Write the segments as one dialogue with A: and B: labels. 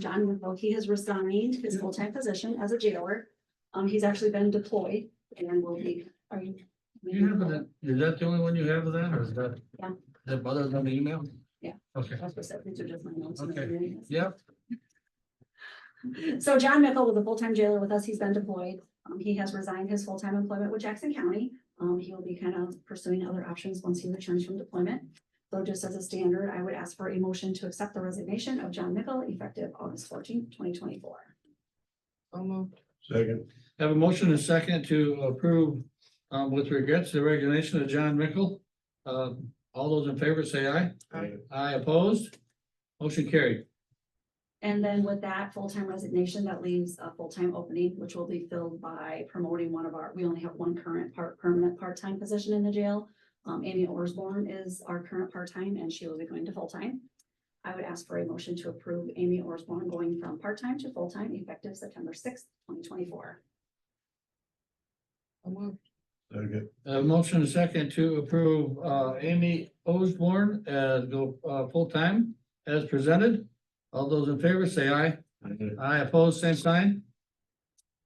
A: John Winville, he has resigned his full-time position as a jailer. Um, he's actually been deployed and will be, are you?
B: Do you have that, is that the only one you have of that, or is that?
A: Yeah.
B: That bothers on the email?
A: Yeah.
B: Okay,
A: That's what I said, these are just my notes.
B: Okay. yeah,
A: So John Mickle was a full-time jailer with us. He's been deployed. Um, he has resigned his full-time employment with Jackson County. Um, he will be kind of pursuing other options once he returns from deployment. So just as a standard, I would ask for a motion to accept the resignation of John Mickle effective August fourteenth, twenty twenty-four.
C: So moved.
D: Second,
B: have a motion and second to approve, um, with regrets, the resignation of John Mickle. Um, all those in favor say aye.
C: Aye.
B: Aye opposed, motion carried.
A: And then with that full-time resignation, that leaves a full-time opening, which will be filled by promoting one of our, we only have one current part, permanent part-time position in the jail. Um, Amy Orsborn is our current part-time and she will be going to full-time. I would ask for a motion to approve Amy Orsborn going from part-time to full-time effective September sixth, twenty twenty-four.
C: So moved.
D: second,
B: A motion and second to approve, uh, Amy Osborne as go, uh, full-time as presented. All those in favor say aye.
D: Aye.
B: Aye opposed, same sign.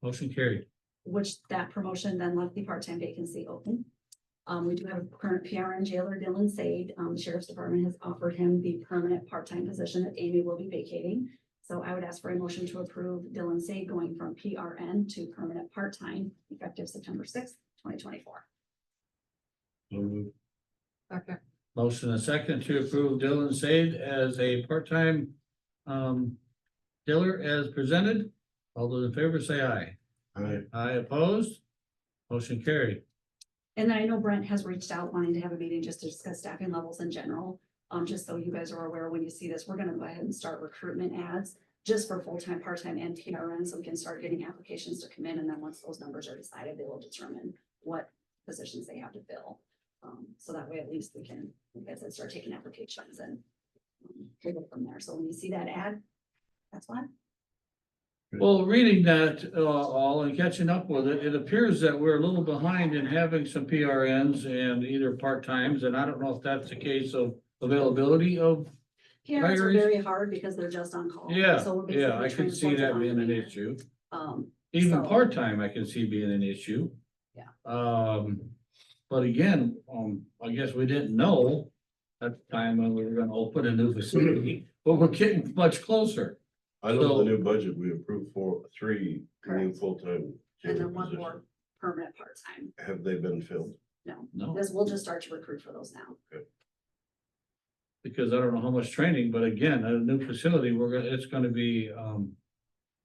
B: Motion carried.
A: which that promotion then left the part-time vacancy open. Um, we do have current PRN jailer Dylan Sade, um, the Sheriff's Department has offered him the permanent part-time position that Amy will be vacating. So I would ask for a motion to approve Dylan Sade going from PRN to permanent part-time effective September sixth, twenty twenty-four.
D: so moved,
C: Second.
B: Motion and second to approve Dylan Sade as a part-time um dealer as presented. All those in favor say aye.
D: aye,
B: Aye opposed. Motion carried.
A: And then I know Brent has reached out wanting to have a meeting just to discuss staffing levels in general. Um, just so you guys are aware, when you see this, we're gonna go ahead and start recruitment ads just for full-time, part-time and PRN, so we can start getting applications to come in, and then once those numbers are decided, they will determine what positions they have to fill. Um, so that way at least we can, like I said, start taking applications and um, we go from there. So when you see that ad, that's why.
B: Well, reading that uh all and catching up with it, it appears that we're a little behind in having some PRNs and either part-times, and I don't know if that's the case of availability of.
A: PRNs are
B: Hires.
A: very hard because they're just on call.
B: Yeah,
A: So we're
B: yeah, I
A: basically trying
B: could
A: to
B: see
A: focus
B: that
A: on
B: being an
A: demand.
B: issue.
A: Um,
B: Even
A: So-
B: part-time, I can see being an issue.
A: Yeah.
B: Um, but again, um, I guess we didn't know at the time when we were gonna open a new facility, but we're getting much closer.
D: I know
B: So-
D: the new budget, we approved for three new
A: Correct.
D: full-time.
A: and
D: jailer
A: then one more
D: positions.
A: permanent part-time.
D: Have they been filled?
A: No,
B: No,
A: this, we'll just start to recruit for those now.
B: because I don't know how much training, but again, a new facility, we're gonna, it's gonna be, um,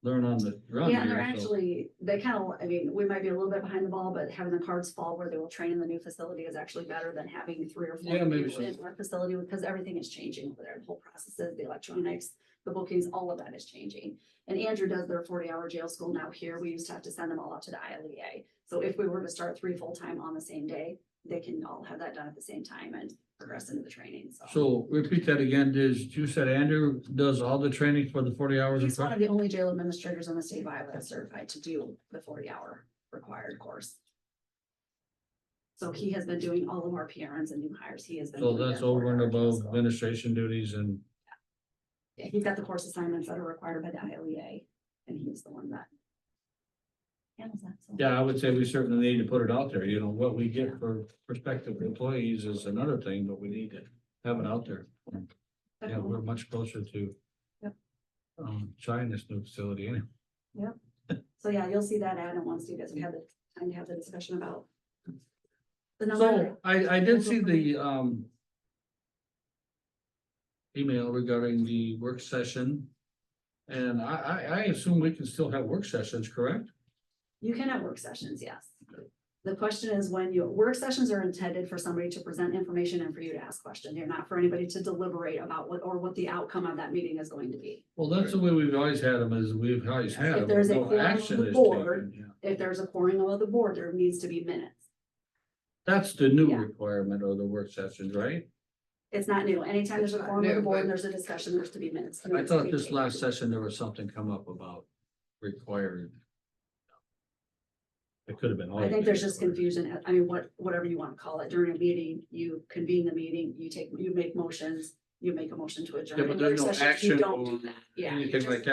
B: learn on the run
A: Yeah, and they're
B: here, so.
A: actually, they kind of, I mean, we might be a little bit behind the ball, but having the cards fall where they will train in the new facility is actually better than having three or four
B: Yeah, maybe
A: people in our facility, because everything is changing over there, the whole processes, the electronics, the bookings, all of that is changing. And Andrew does their forty-hour jail school now here. We used to have to send them all out to the ILEA. So if we were to start three full-time on the same day, they can all have that done at the same time and progress into the training,
B: So repeat that again, is, you said Andrew does all the training for the forty hours?
A: He's
B: of
A: one
B: practice?
A: of the only jail administrators in the state of Iowa that's certified to do the forty hour required course. So he has been doing all of our PRNs and new hires. He has been.
B: So
A: doing
B: that's
A: that
B: over and
A: 40 hours
B: above
A: also.
B: administration duties and
A: Yeah, He's got the course assignments that are required by the ILEA and he's the one that. handles that. so.
B: Yeah, I would say we certainly need to put it out there, you know, what we get for prospective employees is another thing, but we need to have it out there. Yeah,
A: Definitely.
B: we're much closer to.
A: Yep.
B: Um, trying this new facility anyway.
A: So yeah, you'll see that ad and once you guys have had the time to have the discussion about. The number,
B: So I, I did see the, um. Email regarding the work session. And I, I, I assume we can still have work sessions, correct?
A: you can have work sessions, yes. The question is when you, work sessions are intended for somebody to present information and for you to ask questions. They're not for anybody to deliberate about what, or what the outcome of that meeting is going to be.
B: Well, that's the way we've always had them, is we've always had.
A: If
B: them,
A: there's a
B: no
A: quorum of
B: action
A: the
B: is
A: board.
B: taken, yeah.
A: If there's a quorum of the board, there needs to be minutes.
B: That's the new
A: Yeah.
B: requirement of the work sessions, right?
A: It's not new. Anytime there's a
C: It's not
A: quorum of the
C: new,
A: board,
C: but-
A: and there's a discussion, there's to be minutes.
B: I thought this last session, there was something come up about required. It could have been.
A: I think there's just confusion. I mean, what, whatever you want to call it. During a meeting, you convene the meeting, you take, you make motions, you make a motion to adjourn.
B: Yeah, but
A: In
B: there's
A: work
B: no
A: sessions, you
B: action
A: don't do
B: or
A: that. Yeah. you
B: Anything
A: just-
B: like that.